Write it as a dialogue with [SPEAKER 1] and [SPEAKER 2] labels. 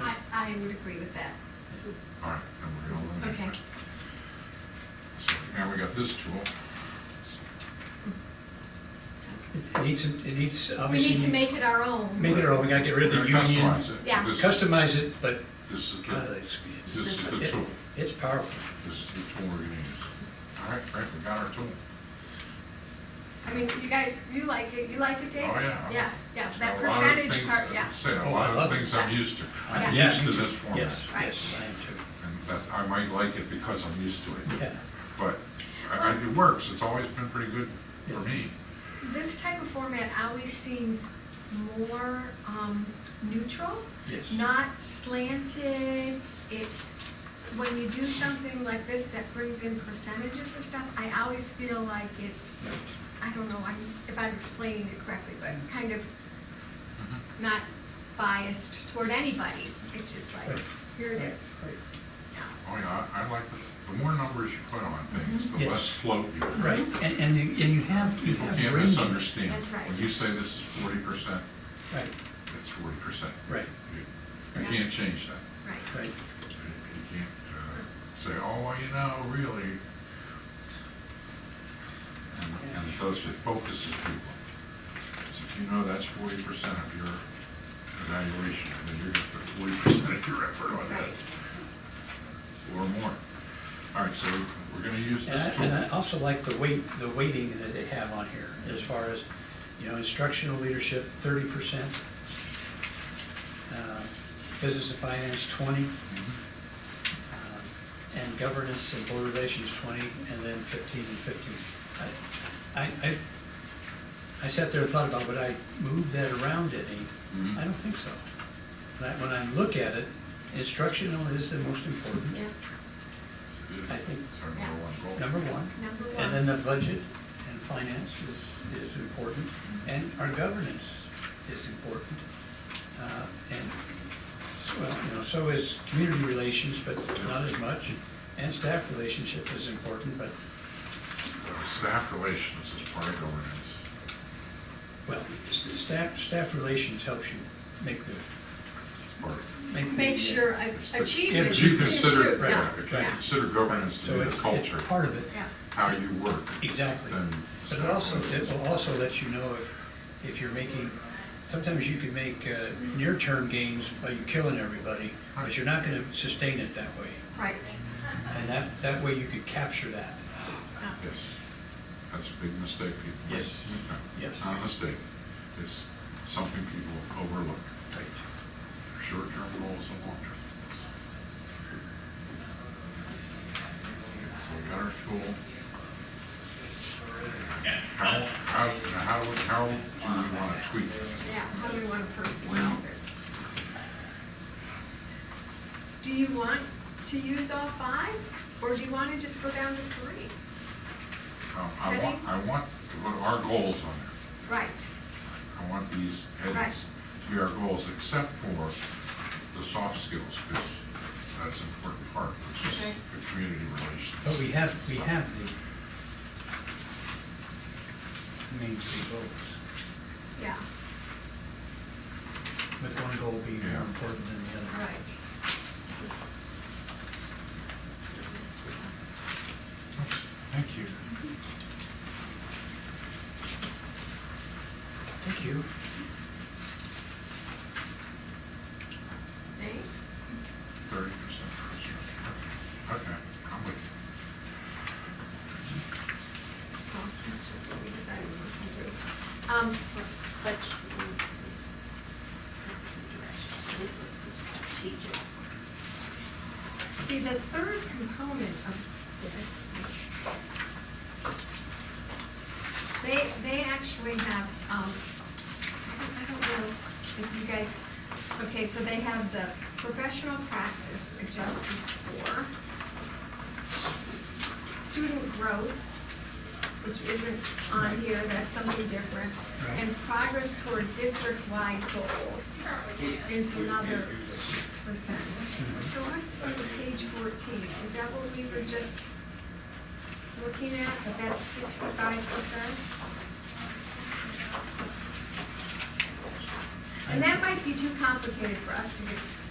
[SPEAKER 1] I, I would agree with that.
[SPEAKER 2] All right, then we're gonna eliminate
[SPEAKER 1] Okay.
[SPEAKER 2] that. So now we got this tool.
[SPEAKER 3] It needs, it needs,
[SPEAKER 1] We
[SPEAKER 3] obviously.
[SPEAKER 1] need to make it our own.
[SPEAKER 3] Make it our own, we gotta get rid of the
[SPEAKER 2] We're gonna
[SPEAKER 3] union.
[SPEAKER 2] customize it.
[SPEAKER 1] Yes.
[SPEAKER 2] This-
[SPEAKER 3] Customize it, but,
[SPEAKER 2] This is
[SPEAKER 3] God,
[SPEAKER 2] the,
[SPEAKER 3] it's,
[SPEAKER 2] this
[SPEAKER 3] it's,
[SPEAKER 2] is the
[SPEAKER 3] it-
[SPEAKER 2] tool.
[SPEAKER 3] it's powerful.
[SPEAKER 2] This is the tool we're gonna use. All right, right, we got our tool.
[SPEAKER 1] I mean, you guys, you like it, you like it, David?
[SPEAKER 2] Oh, yeah.
[SPEAKER 1] Yeah, yeah,
[SPEAKER 2] It's
[SPEAKER 1] that
[SPEAKER 2] got a lot of
[SPEAKER 1] percentage
[SPEAKER 2] things-
[SPEAKER 1] part, yeah.
[SPEAKER 2] Say, a
[SPEAKER 3] Oh, I
[SPEAKER 2] lot of
[SPEAKER 3] love it.
[SPEAKER 2] things I'm used to. I'm
[SPEAKER 1] Yeah.
[SPEAKER 2] used to this format.
[SPEAKER 3] Yes,
[SPEAKER 1] Right.
[SPEAKER 3] yes, I am too.
[SPEAKER 2] And that's, I might like it because I'm used to it.
[SPEAKER 3] Yeah,
[SPEAKER 2] But I- I- it works, it's always been pretty good for me.
[SPEAKER 1] This type of format always seems more, um, neutral,
[SPEAKER 3] yes.
[SPEAKER 1] not slanted. It's, when you do something like this that brings in percentages and stuff, I always feel like it's, I don't know I'm- if I'm explaining it correctly, but kind of
[SPEAKER 3] Mm-hmm.
[SPEAKER 1] not biased toward anybody. It's just like,
[SPEAKER 3] Right.
[SPEAKER 1] here it is. Yeah.
[SPEAKER 2] Oh, yeah, I I like, the the more numbers you put on things, the
[SPEAKER 3] Mm-hmm. Yes.
[SPEAKER 2] less float you have.
[SPEAKER 3] Right, and, and you, and you have, you
[SPEAKER 2] People
[SPEAKER 3] have
[SPEAKER 2] can't
[SPEAKER 3] ranges.
[SPEAKER 2] misunderstand.
[SPEAKER 1] That's right.
[SPEAKER 2] When you say this is forty percent,
[SPEAKER 3] Right,
[SPEAKER 2] it's forty percent.
[SPEAKER 3] right,
[SPEAKER 2] You you
[SPEAKER 1] Yeah.
[SPEAKER 2] can't change that.
[SPEAKER 1] Right.
[SPEAKER 3] right.
[SPEAKER 2] You you can't uh, say, oh, well, you know, really. And, and those, it focuses people. So if you know that's forty percent of your evaluation, then you're gonna put forty percent of your effort on
[SPEAKER 1] That's
[SPEAKER 2] that,
[SPEAKER 1] right.
[SPEAKER 2] or more. All right, so we're gonna use
[SPEAKER 3] And I, oh.
[SPEAKER 2] this tool.
[SPEAKER 3] and I also like the weight, the weighting that they have on here, as far as, you know, instructional leadership, thirty percent. uh, Business and finance, twenty,
[SPEAKER 2] Mhm.
[SPEAKER 3] um, and governance and board relations, twenty, and then fifteen and fifteen. I, I, I- I sat there and thought about, would I move that around any?
[SPEAKER 2] Mhm.
[SPEAKER 3] I don't think so. When I- when I look at it, instructional is the most important,
[SPEAKER 1] Yeah.
[SPEAKER 3] I think-
[SPEAKER 2] It's our number one goal.
[SPEAKER 3] number one.
[SPEAKER 1] Number
[SPEAKER 3] And then
[SPEAKER 1] one.
[SPEAKER 3] the budget and finance is, is important, and our governance is important. Uh, And, so, well, you know, so is community relations, but not as much, and staff relationship is important, but,
[SPEAKER 2] Uh, Staff relations is part of governance.
[SPEAKER 3] well, s- staff, staff relations helps you make the,
[SPEAKER 2] It's part of.
[SPEAKER 3] make the.
[SPEAKER 1] Make sure I
[SPEAKER 2] it's the-
[SPEAKER 1] achieve
[SPEAKER 3] Yeah,
[SPEAKER 1] it.
[SPEAKER 2] If you
[SPEAKER 1] too,
[SPEAKER 2] consider,
[SPEAKER 1] too.
[SPEAKER 3] right,
[SPEAKER 1] Yeah,
[SPEAKER 2] if you
[SPEAKER 3] right.
[SPEAKER 1] yeah,
[SPEAKER 2] consider governance to
[SPEAKER 3] So
[SPEAKER 2] be the
[SPEAKER 3] it's, it's
[SPEAKER 2] culture,
[SPEAKER 3] part of it,
[SPEAKER 1] yeah.
[SPEAKER 2] how you work,
[SPEAKER 3] exactly.
[SPEAKER 2] then.
[SPEAKER 3] But it
[SPEAKER 2] staff
[SPEAKER 3] also, it
[SPEAKER 2] relations.
[SPEAKER 3] will also let you know if, if you're making, sometimes you can make uh, near-term gains by you killing everybody, but you're not gonna sustain it that way.
[SPEAKER 1] Right.
[SPEAKER 3] And that, that way you could capture that.
[SPEAKER 1] Yeah.
[SPEAKER 2] Yes, that's a big mistake people make.
[SPEAKER 3] Yes. Yes.
[SPEAKER 2] Not a mistake, it's something people overlook,
[SPEAKER 3] Right.
[SPEAKER 2] short-term goals and long-term goals. So we got our tool. How, how, how, how do we want to tweak this?
[SPEAKER 1] Yeah, how do we want to personalize it? Do you want to use all five, or do you want to just go down to three?
[SPEAKER 2] Um, I want, I
[SPEAKER 1] Headings?
[SPEAKER 2] want to put our goals on there.
[SPEAKER 1] Right,
[SPEAKER 2] I want these
[SPEAKER 1] Right.
[SPEAKER 2] headings to be our goals, except for the soft skills, because that's an important part, which is
[SPEAKER 1] Okay.
[SPEAKER 2] the community relations.
[SPEAKER 3] But we have, we have the main three goals,
[SPEAKER 1] yeah,
[SPEAKER 3] with one goal being
[SPEAKER 2] Yeah.
[SPEAKER 3] more important than the other.
[SPEAKER 1] right.
[SPEAKER 2] Thank you.
[SPEAKER 3] Thank you.
[SPEAKER 1] Thanks.
[SPEAKER 2] Thirty percent. Okay, I'm with you.
[SPEAKER 1] Well, that's just what we decided we were gonna do. Um,
[SPEAKER 4] But you need some, give us some direction. This was the strategic.
[SPEAKER 1] see, the third component of this, they, they actually have, um, I don't, I don't know if you guys, okay, so they have the professional practice adjusted score, student growth, which isn't on here, that's something different, and progress toward district-wide goals is another percent. So let's go to page fourteen, is that what we were just looking at, that that's sixty-five percent? And that might be too complicated for us to get